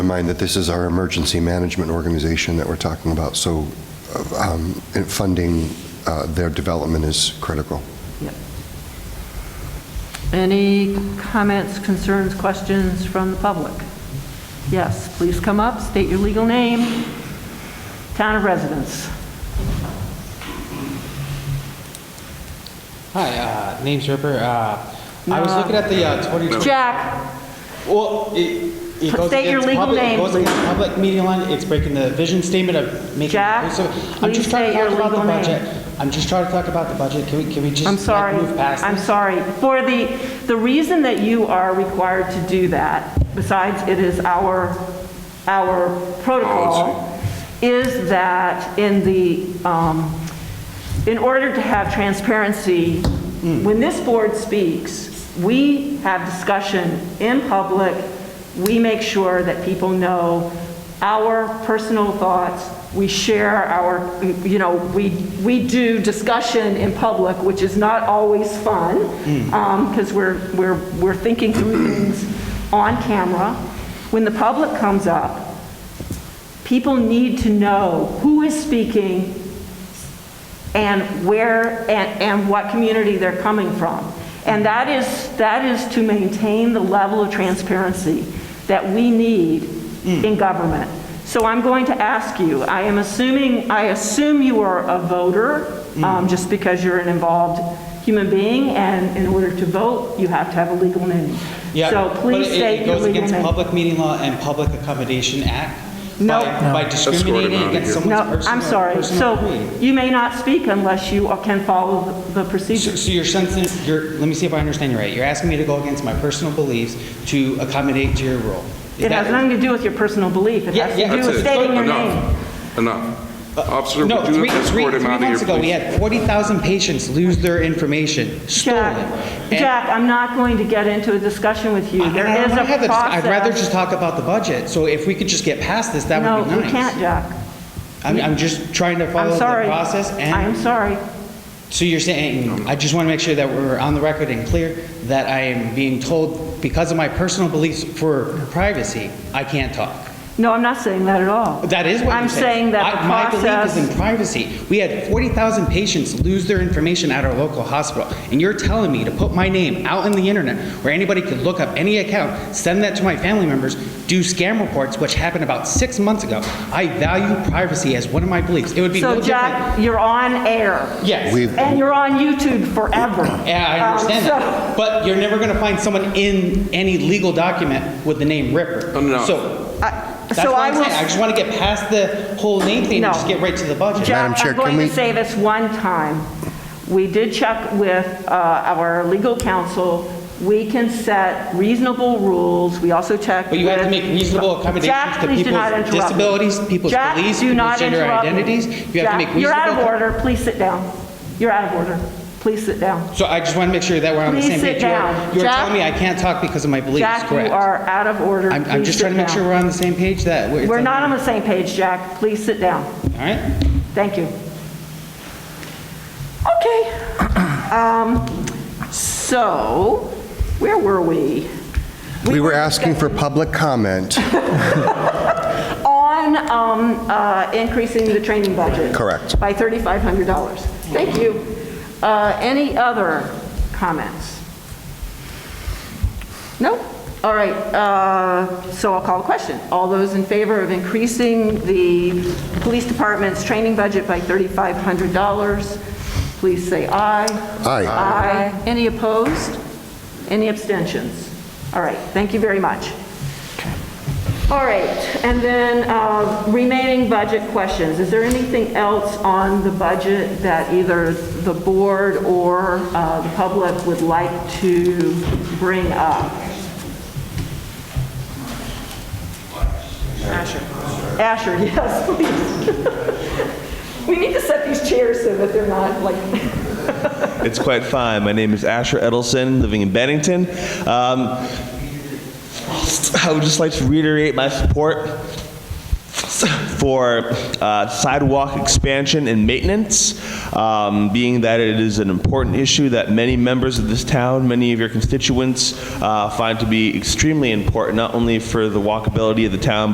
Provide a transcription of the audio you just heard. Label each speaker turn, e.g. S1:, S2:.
S1: in mind that this is our emergency management organization that we're talking about, so um, and funding uh, their development is critical.
S2: Any comments, concerns, questions from the public? Yes, please come up, state your legal name, town of residence.
S3: Hi, uh, name's Ripper. Uh, I was looking at the uh, 2020.
S2: Jack,
S3: Well, it, it goes
S2: State your
S3: against
S2: legal
S3: public,
S2: name,
S3: it goes against public media line. It's breaking the vision statement of making.
S2: Jack,
S3: inclusive. I'm
S2: please
S3: just trying to
S2: state
S3: talk
S2: your
S3: about the
S2: legal name.
S3: budget. I'm just trying to talk about the budget. Can we, can we just
S2: I'm
S3: like,
S2: sorry,
S3: move past
S2: I'm
S3: this?
S2: sorry. For the, the reason that you are required to do that, besides it is our, our protocol, is that in the, um, in order to have transparency, when this board speaks, we have discussion in public, we make sure that people know our personal thoughts, we share our, you know, we, we do discussion in public, which is not always fun, because we're, we're, we're thinking through things on camera. When the public comes up, people need to know who is speaking, and where, and, and what community they're coming from. And that is, that is to maintain the level of transparency that we need
S3: Mm.
S2: in government. So I'm going to ask you, I am assuming, I assume you are a voter,
S3: Mm.
S2: um, just because you're an involved human being, and in order to vote, you have to have a legal name.
S3: Yeah,
S2: So
S3: but
S2: please
S3: it-
S2: state your
S3: It goes
S2: legal
S3: against
S2: name.
S3: Public Meeting Law and Public Accommodation Act.
S2: No.
S3: by- By discriminating against
S2: No,
S3: someone's personal.
S2: I'm sorry.
S3: personal
S2: So
S3: opinion.
S2: you may not speak unless you can follow the the procedure.
S3: So so you're sensing, you're, let me see if I understand you right. You're asking me to go against my personal beliefs to accommodate to your rule. Is
S2: It has
S3: that-
S2: nothing to do with your personal belief. It
S3: Yeah,
S2: has
S3: yeah.
S2: to do
S4: That's
S2: with
S4: it.
S2: stating your name.
S4: Enough. Enough. Officer,
S3: Uh, No,
S4: would you
S3: three, three,
S4: escort
S3: three
S4: him out of here,
S3: months ago, we
S4: please?
S3: had 40,000 patients lose their information, stolen.
S2: Jack,
S3: And
S2: Jack, I'm not going to get into a discussion with you.
S3: I- I
S2: There
S3: don't
S2: is
S3: wanna
S2: a
S3: have the
S2: process.
S3: dis- I'd rather just talk about the budget, so if we could just get past this, that would be
S2: No,
S3: nice.
S2: you can't, Jack.
S3: I'm, I'm just trying to follow
S2: I'm
S3: the
S2: sorry.
S3: process,
S2: I'm
S3: and,
S2: sorry.
S3: so you're saying, I just want to make sure that we're on the record and clear, that I am being told, because of my personal beliefs for privacy, I can't talk.
S2: No, I'm not saying that at all.
S3: That is what
S2: I'm
S3: you're saying.
S2: saying that the
S3: I- My belief is in
S2: process,
S3: privacy. We had 40,000 patients lose their information at our local hospital, and you're telling me to put my name out on the internet where anybody could look up any account, send that to my family members, do scam reports, which happened about six months ago. I value privacy as one of my beliefs. It would be no
S2: so
S3: different.
S2: Jack, you're on air,
S3: Yes.
S1: We've,
S2: and you're on YouTube forever.
S3: Yeah, I
S2: Um,
S3: understand
S2: so-
S3: that. But you're never going to find someone in any legal document with the name Ripper.
S4: Enough.
S3: So
S2: I-
S3: that's
S2: So
S3: what
S2: I
S3: I'm saying. I
S2: will,
S3: just want to get past the whole name thing
S2: No.
S3: and just get right to the budget.
S1: Madam
S2: Jack,
S1: Chair,
S2: I'm
S1: can
S2: going to
S1: we-
S2: say this one time. We did check with uh, our legal counsel. We can set reasonable rules. We also checked
S3: But you have to
S2: with-
S3: make reasonable accommodations
S2: Jack,
S3: to
S2: please do not
S3: people's
S2: interrupt me.
S3: disabilities, people's
S2: Jack,
S3: beliefs,
S2: do not
S3: people's gender
S2: interrupt me.
S3: identities. You have to
S2: Jack,
S3: make
S2: You're out of
S3: reasonable.
S2: order. Please sit down. You're out of order. Please sit down.
S3: So I just want to make sure that we're on the
S2: Please
S3: same
S2: sit
S3: page. You are-
S2: down.
S3: You are
S2: Jack-
S3: telling me I can't talk because of my beliefs,
S2: Jack, you
S3: correct?
S2: are out of order.
S3: I'm, I'm
S2: Please
S3: just trying to
S2: sit
S3: make sure
S2: down.
S3: we're on the same page that we're.
S2: We're not on the same page, Jack. Please sit down.
S3: All right?
S2: Thank you. Okay. Um, So, where were we?
S1: we were asking for public comment.
S2: On um, uh, increasing the training budget.
S1: Correct.
S2: By $3,500. Thank you. Uh, Any other comments? No? All right, uh, so I'll call a question. All those in favor of increasing the police department's training budget by $3,500, please say aye.
S1: Aye.
S2: Aye. Any opposed? Any abstentions? All right, thank you very much. All right, and then uh, remaining budget questions. Is there anything else on the budget that either the board or uh, the public would like to bring up? Asher. Asher, yes, please. We need to set these chairs so that they're not like...
S5: It's quite fine. My name is Asher Edelson, living in Bennington. Um, I would just like to reiterate my support for uh, sidewalk expansion and maintenance, um, being that it is an important issue that many members of this town, many of your constituents, uh, find to be extremely important, not only for the walkability of the town,